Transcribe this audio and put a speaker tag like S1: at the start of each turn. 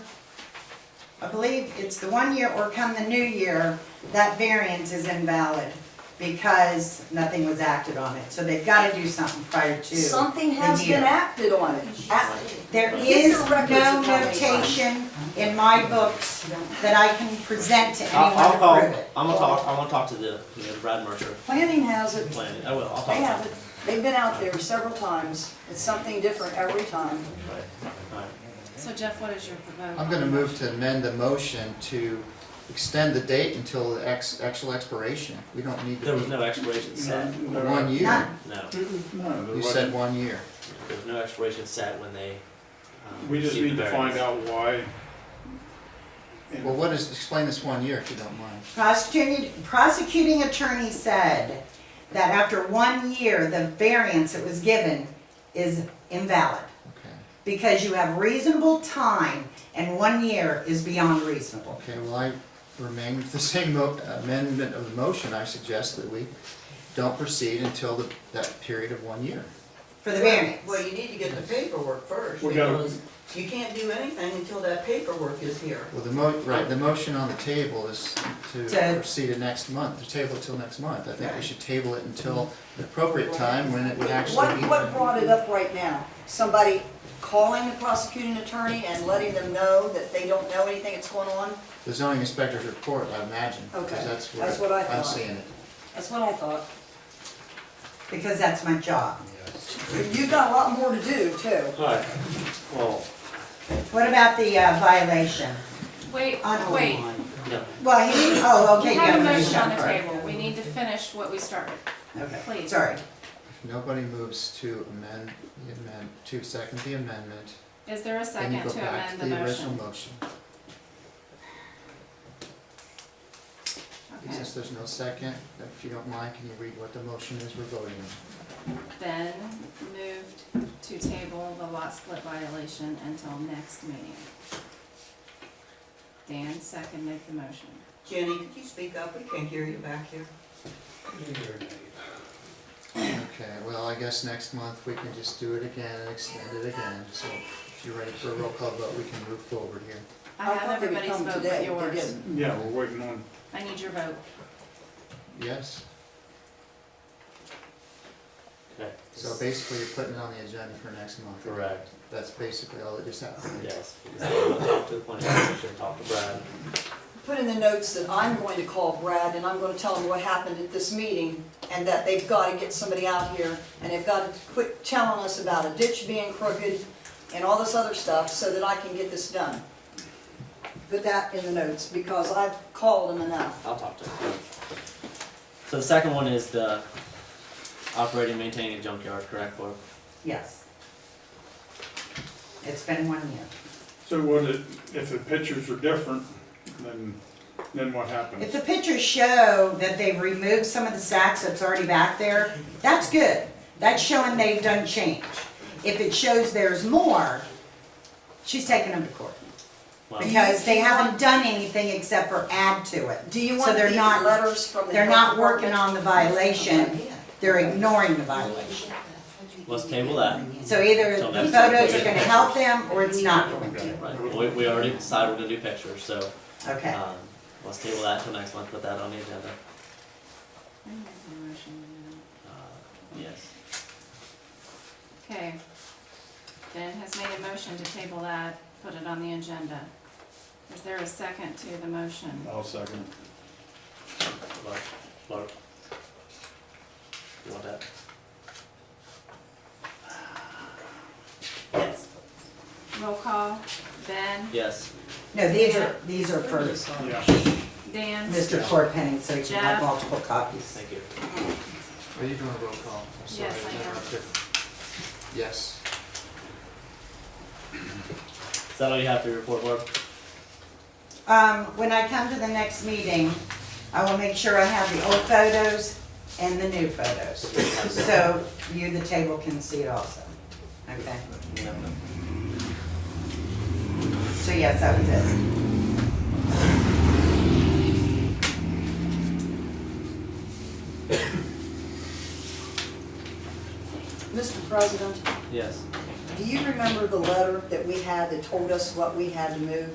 S1: I believe it's the one year or come the new year, that variance is invalid because nothing was acted on it. So they've got to do something prior to.
S2: Something
S1: the
S2: has
S1: year.
S2: been acted on it. Act-
S1: There
S2: Get
S1: is
S2: the records
S1: no
S2: of how many
S1: notation in my books that I can present to
S3: I'll, I'll call,
S1: anyone to prove it.
S3: I'm gonna talk, I'm gonna talk to the, you know, Brad Mercer
S2: Planning has it,
S3: planning, I will, I'll
S2: they
S3: talk
S2: have
S3: to
S2: it,
S3: him.
S2: they've been out there several times, it's something different every time.
S3: Right, right.
S4: So Jeff, what is your vote?
S5: I'm gonna move to amend the motion to extend the date until the ex, actual expiration. We don't need
S3: There was
S5: to
S3: no expiration set,
S5: be one year.
S1: None.
S3: no,
S5: You said one year.
S3: there was no expiration set when they, um,
S6: We just
S3: received
S6: need
S3: the
S6: to find
S3: variance.
S6: out why. And-
S5: Well, what is, explain this one year if you don't mind.
S1: Prosecuting, prosecuting attorney said that after one year, the variance that was given is invalid
S5: Okay,
S1: because you have reasonable time and one year is beyond reasonable.
S5: okay, well, I remain with the same mo- amendment of the motion. I suggest that we don't proceed until the, that period of one year.
S1: for the variance.
S7: Well, you need to get the paperwork first,
S6: We gotta-
S7: because you can't do anything until that paperwork is here.
S5: Well, the mo, right, the motion on the table is to
S1: To-
S5: proceed to next month, to table it till next month. I think we should table it until the appropriate time when it would
S2: What,
S5: actually be.
S2: what brought it up right now? Somebody calling the prosecuting attorney and letting them know that they don't know anything that's going on?
S5: The zoning inspector's report, I imagine,
S2: Okay,
S5: because that's
S2: that's what I
S5: where I'm
S2: thought.
S5: seeing it.
S2: That's what I thought.
S1: Because that's my job.
S2: You've got a lot more to do too.
S3: Alright, well,
S1: What about the uh, violation?
S4: Wait,
S1: On
S4: wait.
S3: no,
S1: Well, he didn't, oh, okay.
S4: We have a
S1: yeah,
S4: motion on the
S1: sorry.
S4: table. We need to finish what we started.
S1: Okay,
S4: Please.
S1: sorry.
S5: Nobody moves to amend the amend, to second the amendment,
S4: Is there a
S5: then you
S4: second
S5: go
S4: to
S5: back
S4: amend
S5: to
S4: the
S5: the original
S4: motion?
S5: motion.
S4: Okay.
S5: Since there's no second, if you don't mind, can you read what the motion is we're voting on?
S4: Then moved to table the lot split violation until next meeting. Dan seconded the motion.
S7: Jenny, could you speak up? We can't hear you back here.
S5: Okay, well, I guess next month we can just do it again and extend it again, so if you're ready for a roll call vote, we can move forward here.
S4: I
S2: thought
S4: have
S2: they would
S4: everybody's
S2: come
S4: vote
S2: today,
S4: but
S2: they
S4: yours.
S2: didn't.
S6: Yeah, we're waiting on,
S4: I need your vote.
S5: Yes,
S3: okay,
S5: so basically you're putting it on the agenda for next month.
S3: correct,
S5: That's basically all that just happened.
S3: yes, I'll talk to the planning commission, talk to Brad,
S2: Put in the notes that I'm going to call Brad and I'm gonna tell him what happened at this meeting and that they've gotta get somebody out here and they've gotta quit telling us about a ditch being crooked and all this other stuff so that I can get this done. Put that in the notes because I've called him enough.
S3: I'll talk to him. So the second one is the operating, maintaining a junkyard, correct, Barb?
S1: Yes. It's been one year.
S6: so what, it- if the pictures are different, then, then what
S1: If
S6: happens?
S1: the pictures show that they've removed some of the sacks that's already back there, that's good. That's showing they've done change. If it shows there's more, she's taking them to court.
S3: Well,
S1: Because they haven't done anything except for add to it.
S2: Do you
S1: So
S2: want
S1: they're
S2: these
S1: not-
S2: letters from the
S1: They're
S2: health
S1: not working
S2: department?
S1: on the violation, they're ignoring the violation.
S3: Let's table that.
S1: So either the photos are gonna help them or it's not going to.
S3: Right, we, we already decided we're gonna do pictures, so,
S1: Okay,
S3: um, let's table that till next month, put that on the agenda.
S4: I didn't make the motion.
S3: Uh, Yes,
S4: Okay. Dan has made a motion to table that, put it on the agenda. Is there a second to the motion?
S6: I'll second.
S3: Barb, Barb. You want that?
S4: Yes. Roll call, Ben,
S3: Yes,
S1: no, these are, these are for
S6: Yeah,
S4: Dan,
S1: Mr. Corpenny, so you can
S4: Jeff.
S1: have multiple copies.
S3: thank you.
S5: Are you doing a roll call? I'm sorry,
S4: Yes, I am.
S5: interrupted. Yes.
S3: Is that all you have for your report, Barb?
S1: Um, when I come to the next meeting, I will make sure I have the old photos and the new photos. So you, the table can see it also, okay?
S3: No.
S1: So yes, that was it.
S2: Mr. President,
S3: Yes.
S2: do you remember the letter that we had that told us what we had to move?